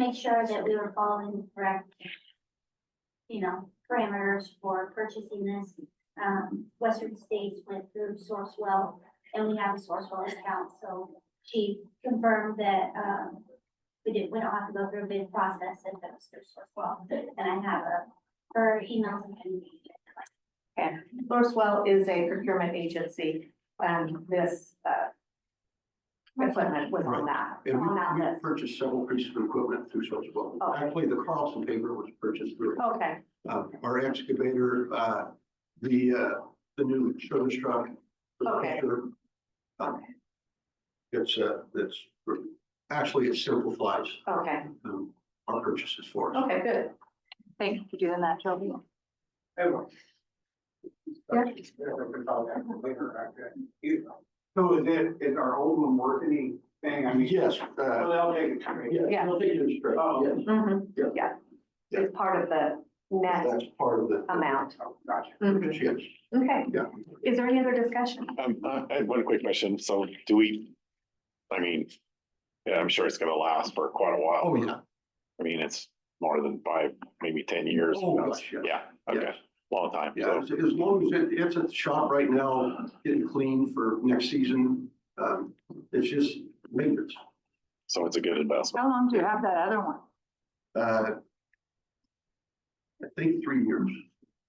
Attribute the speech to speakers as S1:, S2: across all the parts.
S1: make sure that we were following the correct, you know, parameters for purchasing this. Um, Western States went through Sourcewell, and we have a Sourcewell account, so she confirmed that, um, we didn't, we don't have to go through a bid process if it was through Sourcewell, and I have a, her emails and everything.
S2: Sourcewell is a procurement agency, and this, uh, equipment was on that,
S3: And we,
S2: on that
S3: we
S2: list.
S3: purchased several pieces of equipment through Sourcewell.
S2: Okay.
S3: Actually, the Carlson paper was purchased through, it.
S2: Okay,
S3: uh, our excavator, uh, the, uh, the new service truck. the
S2: Okay.
S3: tractor. Um, It's, uh, it's, actually, it simplifies,
S2: okay,
S3: um, our purchases for us.
S2: okay, good. Thank you for doing that, Shelby.
S4: So is it, is our old one worth anything? I mean.
S3: Yes,
S4: Well,
S3: uh,
S4: they'll take it.
S3: yeah.
S2: Yeah.
S3: we'll take it as straight,
S4: Oh.
S3: yes. Yeah.
S2: Mm-hmm, yeah. It's part of the net
S3: That's part of the.
S2: amount.
S4: Oh, Gotcha.
S2: Mhm.
S3: Yes,
S2: Okay,
S3: yeah.
S2: is there any other discussion?
S5: Um, I I had one quick question. So do we, I mean, yeah, I'm sure it's gonna last for quite a
S3: Oh,
S5: while.
S3: yeah.
S5: I mean, it's more than five, maybe ten years.
S3: Oh,
S5: That's-
S3: gosh, yeah.
S5: Yeah, okay, long time.
S3: Yeah, as, as long as it, it's at the shop right now, getting clean for next season, um, it's just maintenance.
S5: So it's a good investment.
S6: How long do you have that other one?
S3: Uh, I think three years,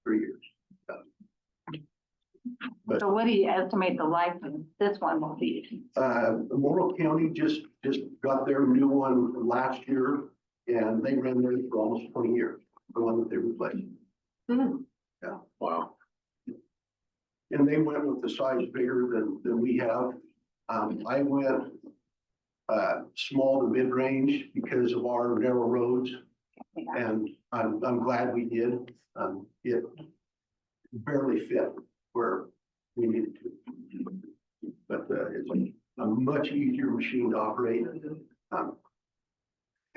S3: three years.
S6: So what do you estimate the life of this one will be?
S3: Uh, Morrow County just, just got their new one last year and they ran theirs for almost twenty years, the one that they replaced. Mm-hmm.
S2: Hmm.
S3: Yeah,
S5: Wow.
S3: and they went with the size bigger than, than we have. Um, I went uh, small to mid-range because of our narrow roads.
S6: Yeah.
S3: And I'm, I'm glad we did. Um, it barely fit where we needed to. But, uh, it's like a much easier machine to operate. Um,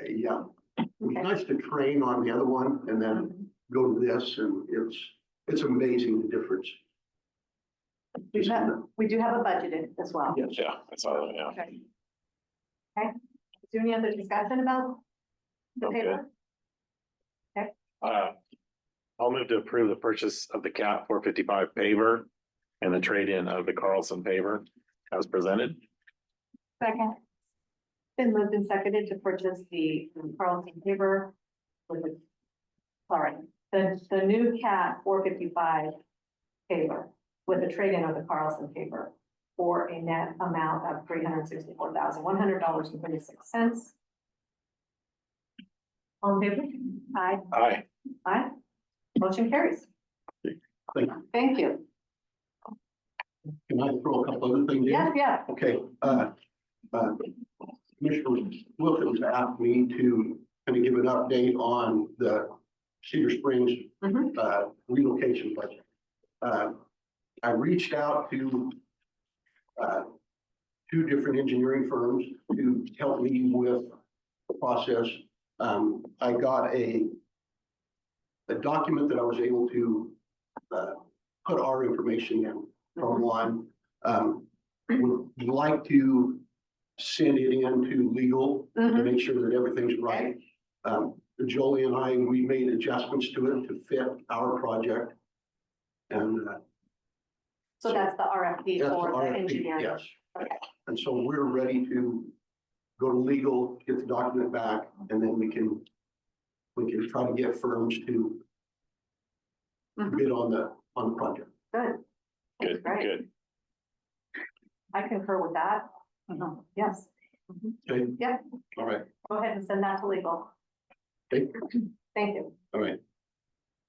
S3: uh, yeah, it was
S2: Okay.
S3: nice to train on the other one and then
S2: Mm-hmm.
S3: go to this and it's, it's amazing the difference.
S2: We have, we do have a budgeted as well.
S3: Yes.
S5: Yeah, that's all, yeah.
S2: Okay. Okay, is there any other discussion about the
S5: Okay.
S2: paper?
S5: Uh, I'll move to approve the purchase of the cat four fifty-five paver and the trade-in of the Carlson paver as presented.
S6: Second,
S2: Been moved and seconded to purchase the Carlton paper with the, sorry, the, the new cat four fifty-five paper with a trade-in of the Carlson paper for a net amount of three hundred sixty-four thousand, one hundred dollars and thirty-six cents. On favor? Aye.
S5: Aye.
S2: Aye. Motion carries.
S3: Thank
S2: Thank you.
S3: Can I throw a couple other things in?
S2: Yeah, yeah.
S3: Okay, uh, uh, Commissioner Wilkins asked me to kind of give an update on the Cedar Springs
S2: Mhm.
S3: uh, relocation budget. Uh, I reached out to uh, two different engineering firms to help me with the process. Um, I got a a document that I was able to uh, put our information in from one. Um, would like to send it in to legal to
S2: Mhm.
S3: make sure that everything's right. Um, Jolie and I, we made adjustments to it to fit our project. And uh,
S2: So that's the RFP
S3: that's
S2: for
S3: our,
S2: the engineering.
S3: yes.
S2: Okay.
S3: And so we're ready to go to legal, get the document back, and then we can, we can try to get firms to
S2: Mhm.
S3: bid on the, on the project.
S2: Good.
S5: Good,
S2: Right.
S5: good.
S2: I concur with that. Um,
S6: Mhm.
S2: Yes,
S3: Okay?
S2: Yeah.
S3: All right,
S2: go ahead and send that to legal.
S3: Okay.
S2: Thank you.
S3: all right.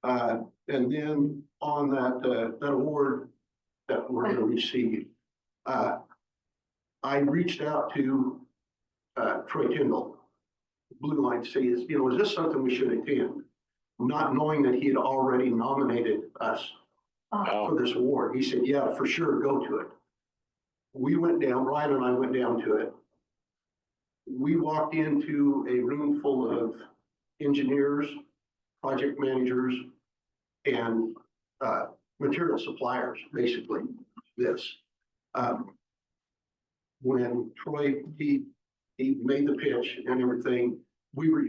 S3: Uh, and then on that, uh, that award that we're gonna receive, uh, I reached out to, uh, Troy Kendall. Blue Line to say, is, you know, is this something we should attend? Not knowing that he had already nominated us
S5: Oh,
S3: for this award. He said, yeah, for sure, go to it. We went down, Ryan and I went down to it. We walked into a room full of engineers, project managers, and uh, material suppliers, basically, this. Um, When Troy, he, he made the pitch and everything, we were